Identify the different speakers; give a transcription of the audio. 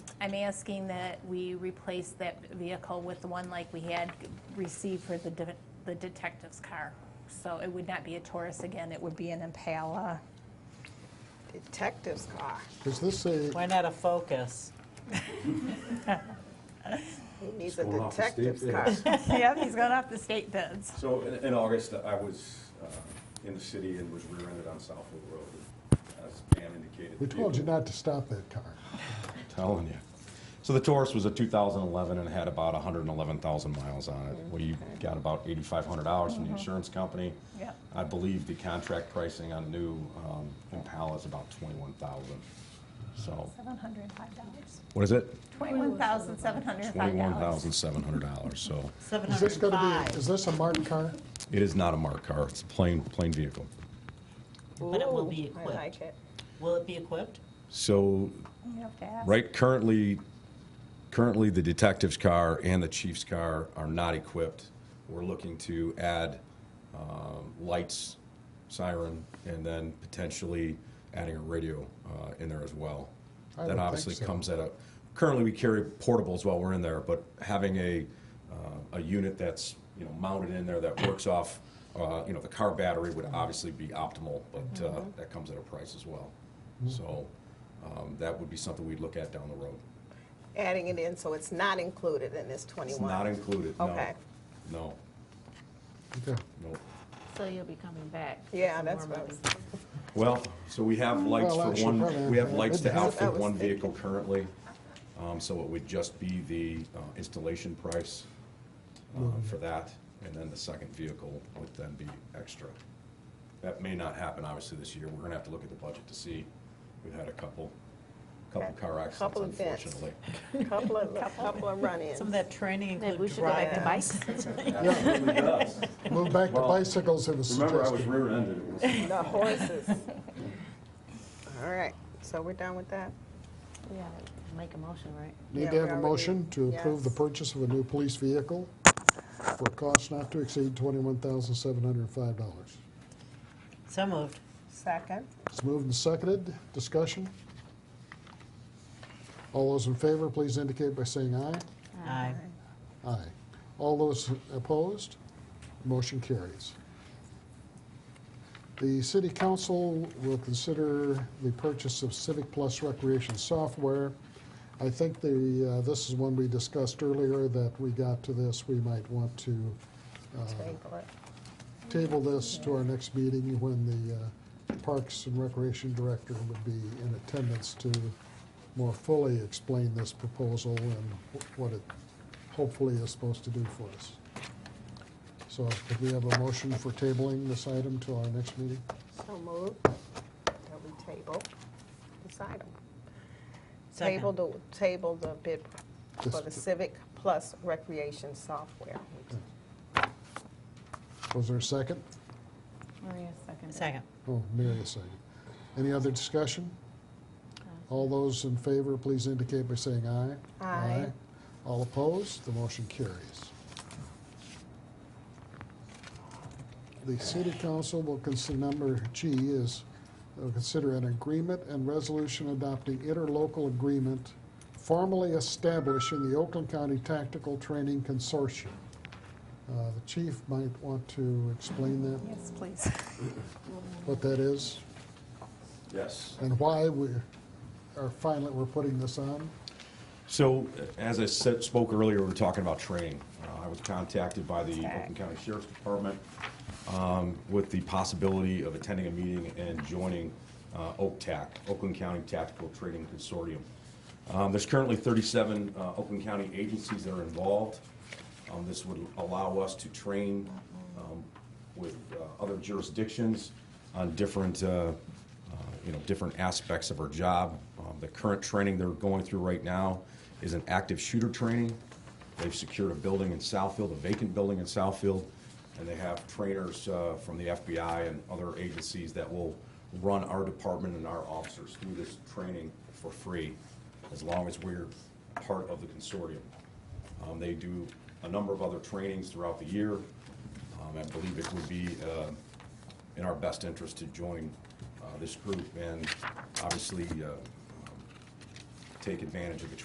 Speaker 1: I'm asking that we replace that vehicle with the one like we had received for the de- the detective's car. So it would not be a Taurus again, it would be an Impala.
Speaker 2: Detective's car.
Speaker 3: Does this say,
Speaker 4: Why not a Focus?
Speaker 2: He needs a
Speaker 5: going off the
Speaker 2: detective's
Speaker 5: state
Speaker 2: car.
Speaker 1: Yep, he's going off the state bids.
Speaker 5: So in, in August, I was uh, in the city and was rear-ended on Southwood Road, as Pam indicated.
Speaker 3: we told you not to stop that car.
Speaker 6: Telling you. So the Taurus was a 2011 and had about 111,000 miles on it. We got about $8,500 from the insurance company.
Speaker 1: Yep.
Speaker 6: I believe the contract pricing on new um, Impala is about 21,000. So,
Speaker 1: $705.
Speaker 6: what is it?
Speaker 1: $21,705.
Speaker 6: $21,700. So
Speaker 3: Is this going to be,
Speaker 4: 705,
Speaker 3: is this a marked car?
Speaker 6: it is not a marked car. It's a plain, plain vehicle.
Speaker 4: but it will be
Speaker 2: Ooh, I
Speaker 4: equipped.
Speaker 2: like it.
Speaker 4: Will it be equipped?
Speaker 6: So
Speaker 1: You have to ask.
Speaker 6: Right, currently, currently the detective's car and the chief's car are not equipped. We're looking to add um, lights, siren, and then potentially adding a radio uh, in there as well.
Speaker 3: I would
Speaker 6: That
Speaker 3: think
Speaker 6: obviously
Speaker 3: so.
Speaker 6: comes at a, currently we carry portables while we're in there, but having a, uh, a unit that's, you know, mounted in there that works off, uh, you know, the car battery would obviously be optimal, but uh,
Speaker 3: Mm-hmm.
Speaker 6: that comes at a price as well. So um, that would be something we'd look at down the road.
Speaker 2: Adding it in, so it's not included in this
Speaker 6: It's not
Speaker 2: twenty-one.
Speaker 6: included, no.
Speaker 2: Okay.
Speaker 6: No,
Speaker 3: Okay.
Speaker 6: no.
Speaker 7: So you'll be coming back? for
Speaker 2: Yeah,
Speaker 7: some
Speaker 2: that's
Speaker 7: more
Speaker 2: what I was
Speaker 7: money.
Speaker 6: Well, so we have lights
Speaker 3: Mm, Well,
Speaker 6: for
Speaker 3: actually, probably,
Speaker 6: one, we have
Speaker 3: yeah,
Speaker 6: lights to
Speaker 3: that's-
Speaker 6: outfit
Speaker 2: I was
Speaker 6: one vehicle currently. Um, So it would just be the uh, installation price uh,
Speaker 3: Mm-hmm.
Speaker 6: for that, and then the second vehicle would then be extra. That may not happen, obviously, this year. We're gonna have to look at the budget to see. We've had a couple, couple car accidents,
Speaker 2: Couple events.
Speaker 6: unfortunately.
Speaker 2: Couple of, couple of run-ins.
Speaker 4: Some of that training
Speaker 7: Maybe we
Speaker 4: include
Speaker 7: should go back to
Speaker 4: driving.
Speaker 7: bikes.
Speaker 5: Absolutely does.
Speaker 3: Move back to
Speaker 5: Well,
Speaker 3: bicycles, it was
Speaker 5: Remember, I was
Speaker 3: suggested.
Speaker 5: rear-ended. It was-
Speaker 2: The horses. All right, so we're done with that?
Speaker 7: Yeah, make a motion, right?
Speaker 3: Need
Speaker 2: Yeah,
Speaker 3: to have
Speaker 2: we
Speaker 3: a
Speaker 2: already-
Speaker 3: motion to approve the
Speaker 2: yes.
Speaker 3: purchase of a new police vehicle for a cost not to exceed $21,705.
Speaker 4: So moved.
Speaker 2: Second?
Speaker 3: It's moved and seconded. Discussion? All those in favor, please indicate by saying aye.
Speaker 4: Aye.
Speaker 3: Aye. All those opposed? Motion carries. The city council will consider the purchase of Civic Plus recreation software. I think the, uh, this is one we discussed earlier, that we got to this, we might want to uh,
Speaker 2: Table it.
Speaker 3: table this to our next meeting when the uh, Parks and Recreation Director would be in attendance to more fully explain this proposal and what it hopefully is supposed to do for us. So could we have a motion for tabling this item to our next meeting?
Speaker 2: So moved, that we table this item.
Speaker 4: Second.
Speaker 2: Table the, table the bid for
Speaker 3: Just-
Speaker 2: the Civic Plus Recreation Software.
Speaker 3: Was there a second?
Speaker 7: Maria seconded.
Speaker 4: Second.
Speaker 3: Oh, Mary a second. Any other discussion? All those in favor, please indicate by saying aye.
Speaker 2: Aye.
Speaker 3: All opposed, the motion carries. The city council will consider, number G is, will consider an agreement and resolution adopting interlocal agreement formally establishing the Oakland County Tactical Training Consortium. Uh, The chief might want to explain that,
Speaker 1: Yes, please.
Speaker 3: what that is
Speaker 5: Yes.
Speaker 3: and why we are finally, we're putting this on.
Speaker 6: So, as I said, spoke earlier, we were talking about training. Uh, I was contacted by the Oakland County Sheriff's Department um, with the possibility of attending a meeting and joining uh, OCTAC, Oakland County Tactical Training Consortium. Um, There's currently 37 uh, Oakland County agencies that are involved. Um, This would allow us to train um, with uh, other jurisdictions on different, uh, uh, you know, different aspects of our job. Um, The current training they're going through right now is an active shooter training. They've secured a building in Southfield, a vacant building in Southfield, and they have trainers uh, from the FBI and other agencies that will run our department and our officers through this training for free, as long as we're part of the consortium. Um, They do a number of other trainings throughout the year. Um, I believe it would be uh, in our best interest to join uh, this group and obviously uh, um, take advantage of the